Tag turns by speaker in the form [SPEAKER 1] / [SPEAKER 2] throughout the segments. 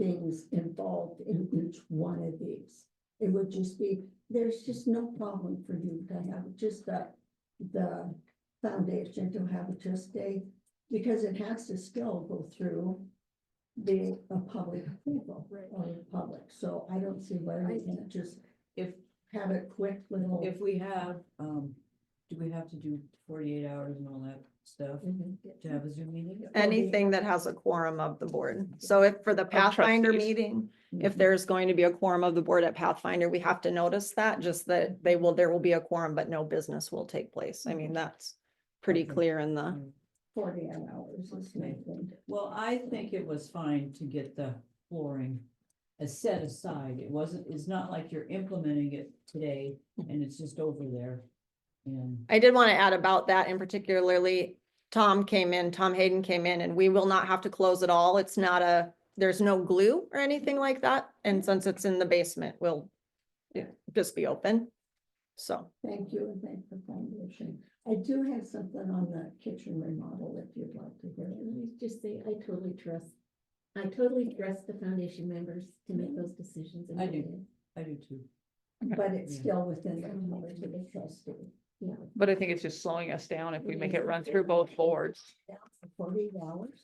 [SPEAKER 1] things involved in each one of these. It would just be, there's just no problem for you to have just the, the foundation to have a trustee, because it has to still go through the, a public approval
[SPEAKER 2] Right.
[SPEAKER 1] or the public, so I don't see why we can't just
[SPEAKER 3] If,
[SPEAKER 1] have a quick little.
[SPEAKER 3] if we have, um, do we have to do forty-eight hours and all that stuff to have a Zoom meeting?
[SPEAKER 4] Anything that has a quorum of the board. So if for the Pathfinder
[SPEAKER 5] trustees.
[SPEAKER 4] meeting,
[SPEAKER 1] Mm-hmm.
[SPEAKER 4] if there's going to be a quorum of the board at Pathfinder, we have to notice that, just that they will, there will be a quorum, but no business will take place. I mean, that's pretty
[SPEAKER 3] Okay.
[SPEAKER 4] clear in the,
[SPEAKER 1] Forty hours is
[SPEAKER 3] Okay.
[SPEAKER 1] nothing.
[SPEAKER 3] Well, I think it was fine to get the flooring uh, set aside. It wasn't, it's not like you're implementing it today and it's just over there. And
[SPEAKER 4] I did want to add about that and particularly Tom came in, Tom Hayden came in and we will not have to close it all. It's not a, there's no glue or anything like that. And since it's in the basement, we'll yeah, just be open. So.
[SPEAKER 1] Thank you and thank the foundation. I do have something on the kitchen remodel if you'd like to hear
[SPEAKER 6] Let
[SPEAKER 1] it.
[SPEAKER 6] me just say, I totally trust, I totally trust the foundation members to make those decisions. and
[SPEAKER 3] I
[SPEAKER 6] make
[SPEAKER 3] do.
[SPEAKER 6] it.
[SPEAKER 3] I do too.
[SPEAKER 1] But it's
[SPEAKER 3] Yeah.
[SPEAKER 1] still within the knowledge of the trustee. Yeah.
[SPEAKER 5] But I think it's just slowing us down if we make it run through both boards.
[SPEAKER 1] Forty hours.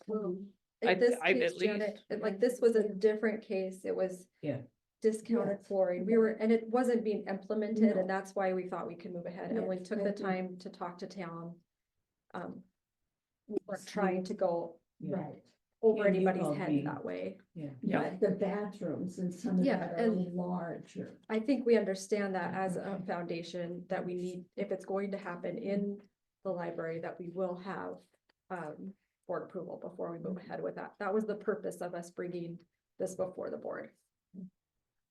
[SPEAKER 2] Like
[SPEAKER 5] I-
[SPEAKER 2] this
[SPEAKER 5] I-
[SPEAKER 2] case,
[SPEAKER 5] at
[SPEAKER 2] Janet,
[SPEAKER 5] least.
[SPEAKER 2] it- like this was a different case, it was.
[SPEAKER 3] Yeah.
[SPEAKER 2] Discounted flooring, we were, and it wasn't being implemented,
[SPEAKER 1] No.
[SPEAKER 2] and that's why we thought we could move ahead, and we
[SPEAKER 1] Yes,
[SPEAKER 2] took
[SPEAKER 1] I
[SPEAKER 2] the
[SPEAKER 1] agree.
[SPEAKER 2] time to talk to town. Um. We weren't trying to go
[SPEAKER 3] Yeah.
[SPEAKER 1] Right.
[SPEAKER 2] over
[SPEAKER 3] And you
[SPEAKER 2] anybody's
[SPEAKER 3] called
[SPEAKER 2] head
[SPEAKER 3] me.
[SPEAKER 2] that way,
[SPEAKER 3] Yeah.
[SPEAKER 5] Yeah.
[SPEAKER 1] But The bathrooms and some of
[SPEAKER 2] Yeah,
[SPEAKER 1] that are
[SPEAKER 2] and-
[SPEAKER 1] larger.
[SPEAKER 2] I think we understand that as a foundation, that we need, if it's going to happen in the library, that we will have. Um, board approval before we move ahead with that, that was the purpose of us bringing this before the board.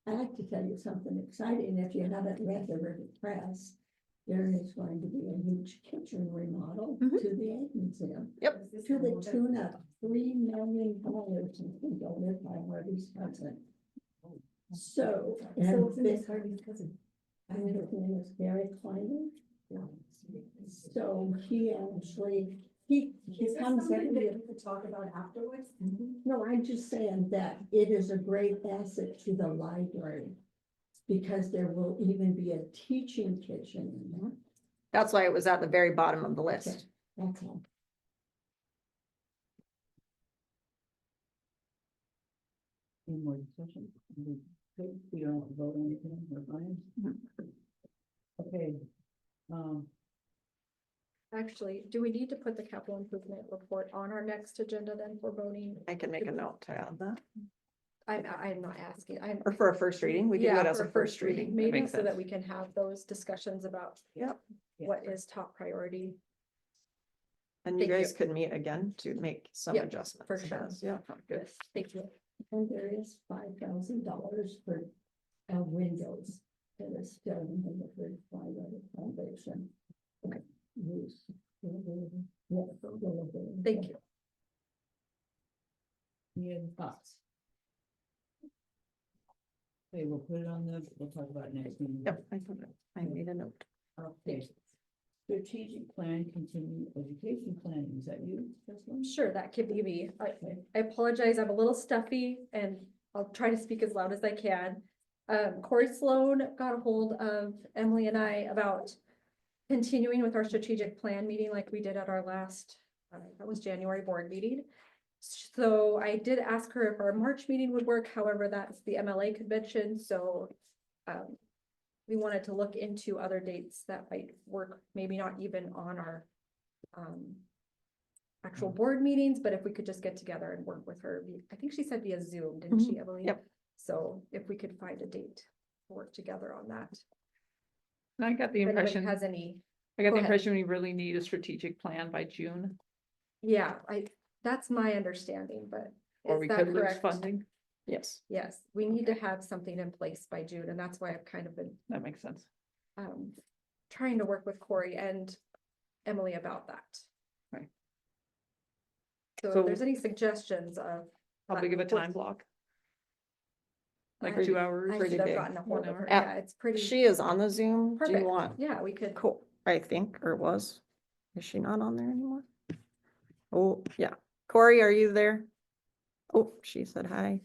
[SPEAKER 1] I'd like to tell you something exciting. If you haven't read the River Press, there is going to be a huge kitchen remodel to
[SPEAKER 4] Mhm.
[SPEAKER 1] the Egg Museum.
[SPEAKER 4] Yep.
[SPEAKER 1] To the tune of three million dollars in donated by Harvey's cousin. So,
[SPEAKER 6] So
[SPEAKER 1] and
[SPEAKER 6] it's
[SPEAKER 1] this,
[SPEAKER 6] Miss Harvey's cousin. I
[SPEAKER 1] and his
[SPEAKER 6] know.
[SPEAKER 1] name is Gary Kleiman.
[SPEAKER 6] Yeah.
[SPEAKER 1] So he actually, he, he
[SPEAKER 6] Is there
[SPEAKER 1] comes
[SPEAKER 6] something
[SPEAKER 1] every
[SPEAKER 6] that
[SPEAKER 1] year.
[SPEAKER 6] we could talk about afterwards?
[SPEAKER 1] No, I'm just saying that it is a great asset to the library. Because there will even be a teaching kitchen in there.
[SPEAKER 4] That's why it was at the very bottom of the list.
[SPEAKER 1] That's all.
[SPEAKER 3] Any more discussion? We good? We don't want to vote on anything, we're fine. Okay. Um,
[SPEAKER 2] Actually, do we need to put the capital improvement report on our next agenda then for voting?
[SPEAKER 4] I can make a note to add that.
[SPEAKER 2] I'm, I'm not asking, I'm.
[SPEAKER 4] Or for a first reading, we can do
[SPEAKER 2] Yeah,
[SPEAKER 4] that as
[SPEAKER 2] for
[SPEAKER 4] a first reading. That
[SPEAKER 2] Maybe
[SPEAKER 4] makes
[SPEAKER 2] so that
[SPEAKER 4] sense.
[SPEAKER 2] we can have those discussions about
[SPEAKER 4] Yep.
[SPEAKER 3] Yeah.
[SPEAKER 2] what is top priority.
[SPEAKER 4] And you
[SPEAKER 2] Thank you.
[SPEAKER 4] guys could meet again to make some
[SPEAKER 2] Yep,
[SPEAKER 4] adjustments.
[SPEAKER 2] for
[SPEAKER 4] to
[SPEAKER 2] sure.
[SPEAKER 4] this. Yeah, sounds good.
[SPEAKER 2] Thank you.
[SPEAKER 1] And there is five thousand dollars for uh windows that is still in the Liverpool Flyway Foundation. Use.
[SPEAKER 2] Thank you.
[SPEAKER 3] any other thoughts? Okay, we'll put it on the, we'll talk about it next meeting.
[SPEAKER 4] Yep, I put it- I made a note.
[SPEAKER 3] Okay. Strategic plan, continuing education planning, is that you? Jocelyn?
[SPEAKER 2] Sure, that could be me. I,
[SPEAKER 3] Okay.
[SPEAKER 2] I apologize, I'm a little stuffy and I'll try to speak as loud as I can. Um, Corey Sloan got a hold of Emily and I about continuing with our strategic plan meeting like we did at our last, uh, that was January board meeting. So I did ask her if our March meeting would work, however, that's the MLA convention, so um, we wanted to look into other dates that might work, maybe not even on our um, actual board meetings, but if we could just get together and work with her, we- I think she said via Zoom, didn't
[SPEAKER 5] Mm-hmm.
[SPEAKER 2] she, Emily?
[SPEAKER 4] Yep.
[SPEAKER 2] So if we could find a date, to work together on that.
[SPEAKER 5] And I got the
[SPEAKER 2] If anybody
[SPEAKER 5] impression,
[SPEAKER 2] has any,
[SPEAKER 5] I got
[SPEAKER 2] go
[SPEAKER 5] the
[SPEAKER 2] ahead.
[SPEAKER 5] impression we really need a strategic plan by June,
[SPEAKER 2] yeah, I, that's my understanding, but.
[SPEAKER 5] or
[SPEAKER 2] is
[SPEAKER 5] we
[SPEAKER 2] that
[SPEAKER 5] could lose
[SPEAKER 2] correct?
[SPEAKER 5] funding.
[SPEAKER 4] Yes.
[SPEAKER 2] Yes, we need to have something in place by June, and that's why I've kind of been
[SPEAKER 5] That makes sense.
[SPEAKER 2] um trying to work with Corey and Emily about that.
[SPEAKER 5] Right.
[SPEAKER 2] So
[SPEAKER 5] So-
[SPEAKER 2] if there's any suggestions of,
[SPEAKER 5] How
[SPEAKER 2] But
[SPEAKER 5] big of a
[SPEAKER 2] what's-
[SPEAKER 5] time block? Like
[SPEAKER 2] I-
[SPEAKER 5] two hours?
[SPEAKER 2] I
[SPEAKER 4] pretty
[SPEAKER 2] should have
[SPEAKER 4] big,
[SPEAKER 2] gotten a hold of her,
[SPEAKER 5] whatever.
[SPEAKER 2] yeah, it's pretty,
[SPEAKER 4] She is on the Zoom. Do you
[SPEAKER 2] Um, Perfect.
[SPEAKER 4] want?
[SPEAKER 2] yeah, we could,
[SPEAKER 4] Cool, I think, or was. Is she not on there anymore? Oh, yeah. Corey, are you there? Oh, she said hi.